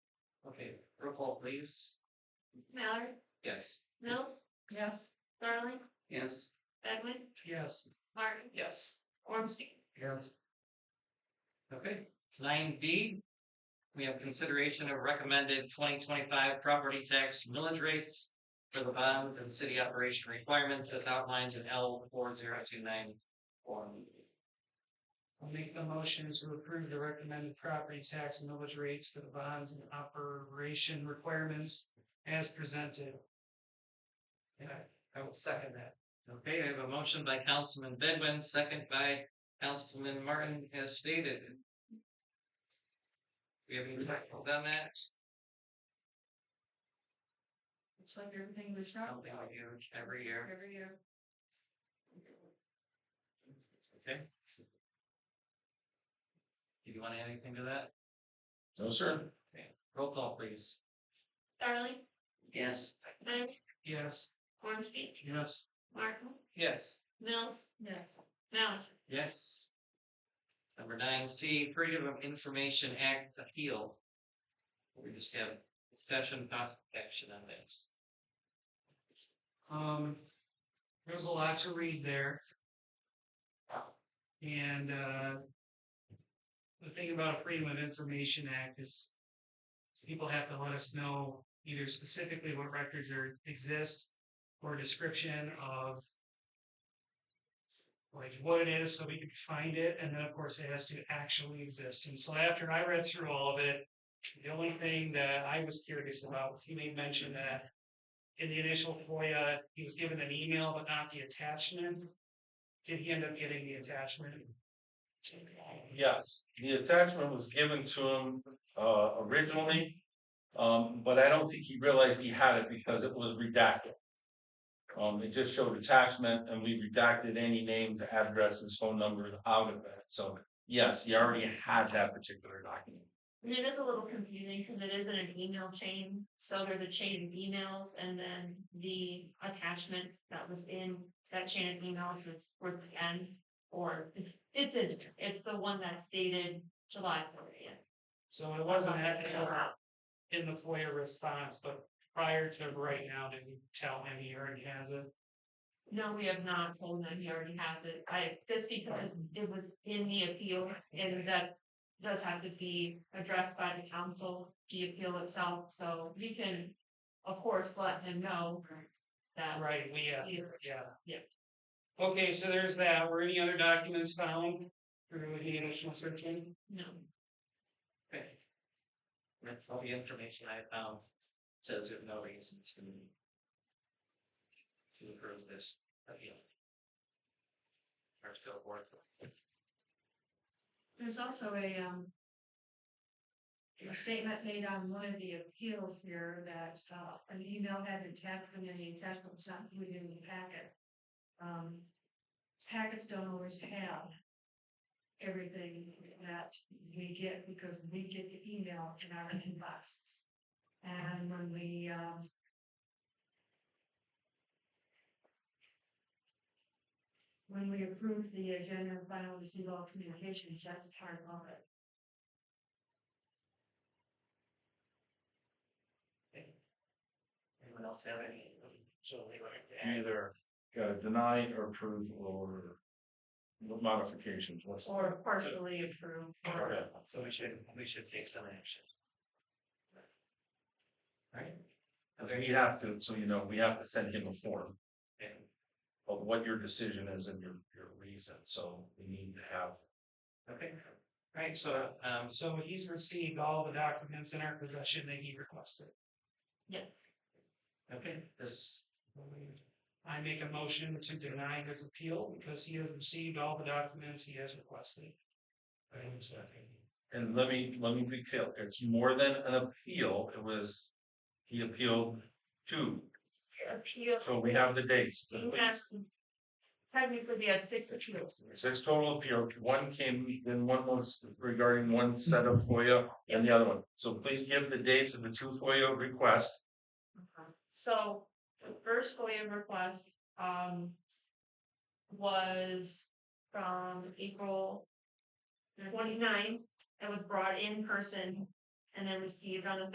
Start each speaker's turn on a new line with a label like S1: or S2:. S1: Roll call, please.
S2: Mallory,
S1: Yes.
S2: Mills,
S3: Yes.
S2: Darling,
S1: Yes.
S2: Bedwin,
S1: Yes.
S2: Martin,
S1: Yes.
S2: Ormski.
S1: Yes. Okay, nine D. We have consideration of recommended twenty twenty-five property tax millage rates for the bond and city operation requirements as outlined in L four zero two nine four.
S4: I'll make the motion to approve the recommended property tax and millage rates for the bonds and operation requirements as presented.
S1: Yeah, I will second that. Okay, I have a motion by Councilman Bedwin, second by Councilman Martin as stated. We have any questions on that?
S3: It's like everything was wrong
S1: Something like huge every year.
S3: every year.
S1: Okay. Do you want to add anything to that?
S5: No, sir.
S1: Roll call, please.
S2: Darling,
S1: Yes.
S2: Bed,
S4: Yes.
S2: Ormski,
S4: Yes.
S2: Martin,
S1: Yes.
S2: Mills,
S3: Yes.
S2: Mallory.
S1: Yes. Number nine, C, Freedom of Information Act appeal. We just have discussion, possible action on this.
S4: Um, there was a lot to read there. And, uh, the thing about Freedom of Information Act is is people have to let us know either specifically what records are, exist or description of like what it is so we can find it. And then, of course, it has to actually exist. And so after I read through all of it, the only thing that I was curious about was he made mention that in the initial FOIA, he was given an email but not the attachment. Did he end up getting the attachment?
S5: Yes, the attachment was given to him uh originally. Um, but I don't think he realized he had it because it was redacted. Um, it just showed attachment and we redacted any names, addresses, phone numbers out of that. So yes, he already had that particular document.
S2: And it is a little confusing because it is in an email chain, so there's a chain of emails and then the attachment that was in that chain of emails was toward the end. Or it's, it's, in- it's the one that's dated July thirtieth.
S4: So it wasn't that in the FOIA response, but prior to right now, did we tell him he already has it?
S2: No, we have not told him, he already has it, I, just because it was in the appeal, and that does have to be addressed by the council, the appeal itself, so we can, of course, let him know that.
S4: Right, we, uh,
S2: we-
S4: yeah.
S2: Yeah.
S4: Okay, so there's that. Were any other documents found through the initial searching?
S2: No,
S1: Okay. That's all the information I found. Says there's no reason to to approve this appeal. Or still worth it.
S3: There's also a, um, a statement made on one of the appeals here that, uh, an email had an attachment and the attachment was not included in the packet. Um, packets don't always have everything that we get because we get the email in our inboxes. And when we, um, when we approve the agenda and file receive all communications, that's part of it.
S1: Anyone else have any? So we want to add?
S5: Either gotta deny or approve or modifications, what's
S2: or partially approved, or
S5: Okay.
S1: So we should, we should take some action. Right?
S5: Because we have to, so you know, we have to send him a form
S1: Okay.
S5: of what your decision is and your, your reason, so we need to have.
S1: Okay, right, so, um, so
S4: So he's received all the documents in our possession that he requested.
S1: Okay, this,
S4: I make a motion to deny his appeal because he has received all the documents he has requested.
S5: And let me, let me be clear, it's more than an appeal, it was, he appealed two,
S2: appeal.
S5: so we have the dates. the
S2: You have,
S5: dates.
S2: technically, we have six appeals,
S5: Six total appeals, one came, then one was regarding one set of FOIA and the other one, so please give the dates of the two FOIA requests.
S2: so the first FOIA request, um. Was from April 29th. it was brought in person and then received on the